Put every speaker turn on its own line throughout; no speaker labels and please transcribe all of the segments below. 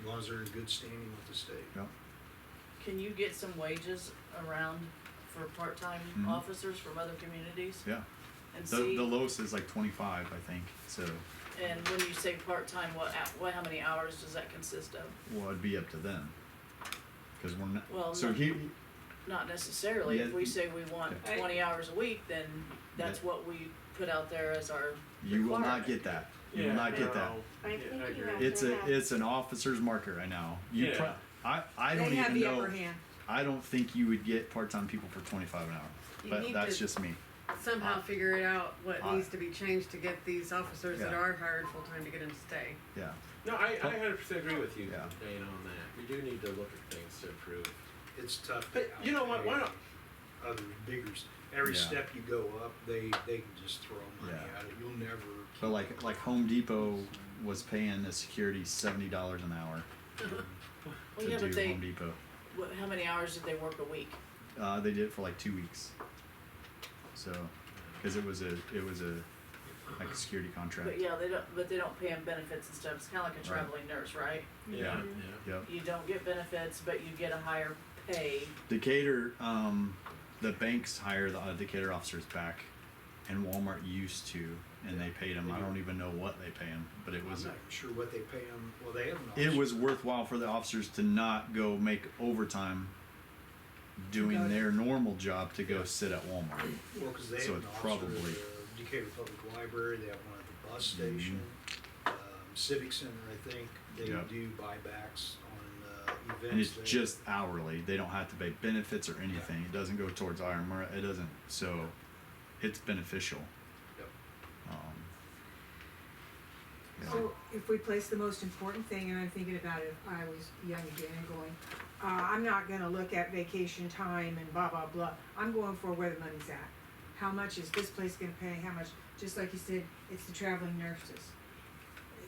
as long as they're in good standing with the state.
Yep.
Can you get some wages around for part-time
Mhm.
officers from other communities?
yeah.
And
The,
see,
the lowest is like twenty-five, I think, so,
and when you say part-time, what, hou- what, how many hours does that consist of?
well, it'd be up to them. Cause we're
Well,
not, so
no.
here,
Not necessarily, if
Yeah.
we say we want
Okay.
twenty hours a week, then that's
Yeah.
what we put out there as our,
you will not
Requirement.
get that, you will
Yeah,
not get that.
no,
I
yeah,
think you
agree.
have-
It's a,
Yeah.
it's an officer's market right now. You
Yeah.
pro- I, I don't
They have
even
the upper
know,
hand.
I don't think you would get part-time people for twenty-five an hour,
You
but
need
that's
to-
just me.
Uh,
somehow figure it out what
I-
needs to be changed to get these officers that
Yeah.
are hired full time to get them to stay.
Yeah,
No, I, I hundred percent agree with you, Dana,
Yeah.
on that. We do need to look at things to improve.
It's tough.
But you know what, why don't,
Other biggers, every
Yeah.
step you go up, they, they can just throw money
Yeah.
at it, you'll never.
but like, like Home Depot was paying a security seventy dollars an hour
well, yeah,
to
but
do
they,
Home Depot.
what, how many hours did they work a week?
Uh, they did it for like two weeks. So, because it was a, it was a, like a security
But
contract.
yeah, they don't, but they don't pay them benefits and stuff, it's kinda like a traveling nurse, right?
yeah,
Mhm.
yeah.
Yep.
You don't get benefits, but you get a higher pay.
Decatur, um, the banks hire the uh, Decatur officers back, and Walmart used to, and they paid them. I don't even know what they pay them, but it
I'm not
was
even sure what they pay them, well, they have. an
it
officer.
was worthwhile for the officers to not go make overtime doing
Got it.
their normal job to go sit at Walmart.
Well, because they
So
have an
it's
officer at
probably- Mm-hmm.
the Decatur Public Library, they have one at the bus station, um, Civic Center, I think, they
Yep.
do buybacks on, uh, events.
And it's
there.
just hourly. They don't have to pay benefits or anything. It doesn't go towards IRMR. It doesn't. So it's beneficial.
Yep.
Um, yeah.
So if we place the most important thing, and I'm thinking about it, if I was young again and going, uh, I'm not gonna look at vacation time and blah, blah, blah. I'm going for where the money's at. How much is this place gonna pay? How much, just like you said, it's the traveling nurses.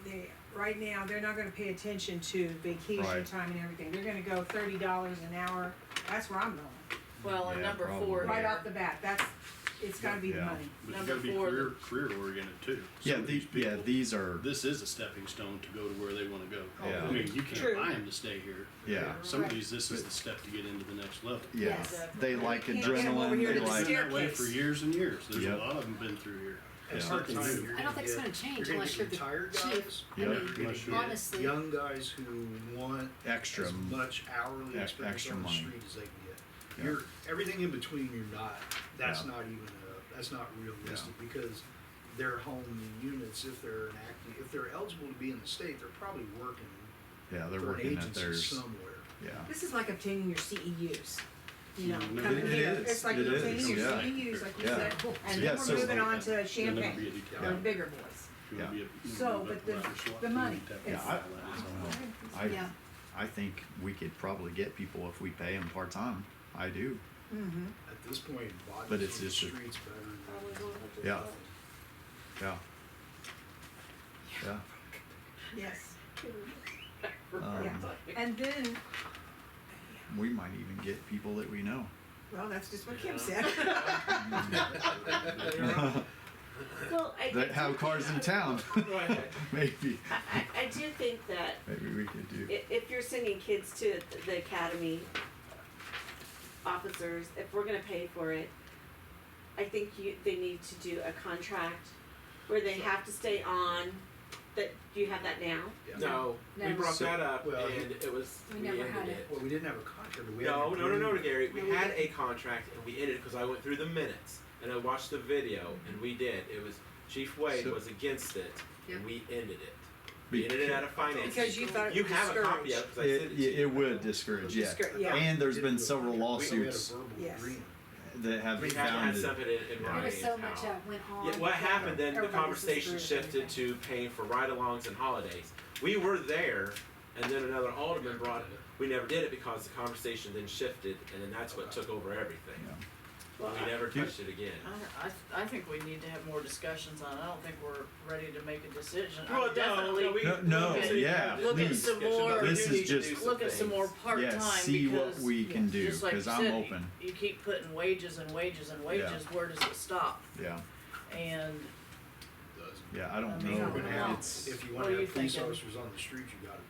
They, right now, they're not gonna pay attention to vacation
Right.
time and everything. They're gonna go thirty dollars an hour. That's where I'm going.
Well, and
Yeah,
number four,
probably.
Right
there-
off the bat, that's, it's gotta be the
Yeah.
money.
But you
Number
gotta be
four,
career, career oriented too.
yeah,
Some of
these, yeah,
people-
these are.
This is a stepping stone to go to where they wanna go.
Yeah.
I mean, you
True.
can't buy them to stay here.
Yeah.
Some of
Right.
these, this is the step to get into the next level.
Yeah,
Yes.
they like
Can't get 'em over
adrenaline.
here
They
to the
It's
like
been that way for
Staircase.
years and years. There's
Yep.
a lot of them been through here.
At
Yeah.
some
Something
time,
new.
you're
I don't
gonna
think it's
get-
gonna change
you're gonna
unless
get
you're the
Retired
chief.
guys,
I
Yeah.
you're
mean,
gonna get
Unless you're-
Honestly.
young guys who want
extra.
as much hourly
e-
experience
extra
on the
money.
street as they can
Yeah.
get. You're, everything in between, you're not, that's
Yeah.
not even, a- that's not realistic, because their home units, if they're an active, if they're eligible to be in the state, they're probably working
Yeah,
for
they're
an
working at
agency
theirs.
somewhere.
Yeah.
This is like obtaining your E CEUs, you know,
Mhm.
coming
It- it
here,
is.
it's like
It
obtaining
is,
your
yeah.
CEUs, like you
Yeah.
said, and
Yeah,
then we're
so-
moving on to
You'll never be
champagne,
a detective.
or
Yeah.
bigger boys.
You'll
Yeah.
be a- you'll
So,
be a
but the-
black SWAT
the
team
money,
detective.
Yeah,
It's-
I,
That is all.
I,
Yeah.
I think we could probably get people if we pay them part time. I do.
Mm-hmm.
At this point, bodies on
But
the
it's just a-
streets better than.
Yeah. Yeah. Yeah.
Yes,
Um,
and then,
we might even get people that we know.
well, that's just what Kim said.
Well, I,
that have cars in town. maybe,
I, I- I do think that
maybe we could do.
i- if you're sending kids to the academy, officers, if we're gonna pay for it, I think you, they need to do a contract where they have to stay on, that, do you have that now?
Yeah.
No, we
No.
brought
So-
that up
well,
and it was,
We
we
never
ended
had
it.
it.
Well, we didn't have a contract, we had. an
No, no, no, no,
agreement.
Gary,
No,
we
we
had a
didn't.
contract and we ended it because I went through the minutes and I watched the video and we did. It was, Chief Wade
Mm-hmm. So-
was against it and
Yeah.
we ended it. We ended it out of finance.
Because you thought it
You
was
have a copy of
discouraged.
it because I
It,
sent it to
it,
you.
it would discourage, yeah.
Discour- yeah.
And there's
Didn't
been
do a
several
contract. We- we had a
lawsuits
verbal
Yes.
agreement.
that have
We
been
have to have
founded.
something in, in
Yeah.
writing.
There was so
of
much
how-
that went on.
Yeah, what happened then? The
Everybody was
conversation
discouraged,
shifted
I
to paying for ride-alongs and holidays. We were there, and then another alderman brought it. We never did it because the conversation then shifted, and then that's what took over everything.
Well,
We never
Do-
touched it again.
I, I, I think we need to have more discussions on it, I don't think we're ready to make a decision. I
Well,
mean,
no,
definitely
no, we,
No, no,
we can-
yeah,
Look at
please.
some more,
This is
we need to
just-
look at some more part-time,
Yeah,
because.
see what we can do,
just like you
cause I'm
said,
open,
You keep putting wages and wages and wages, where does it stop?
yeah,
And
Does.
yeah, I don't
I mean,
If
know,
you wanna
Yeah.
have-
it's,
If you
What are
wanna
you
have police
thinking?
officers on the street, you gotta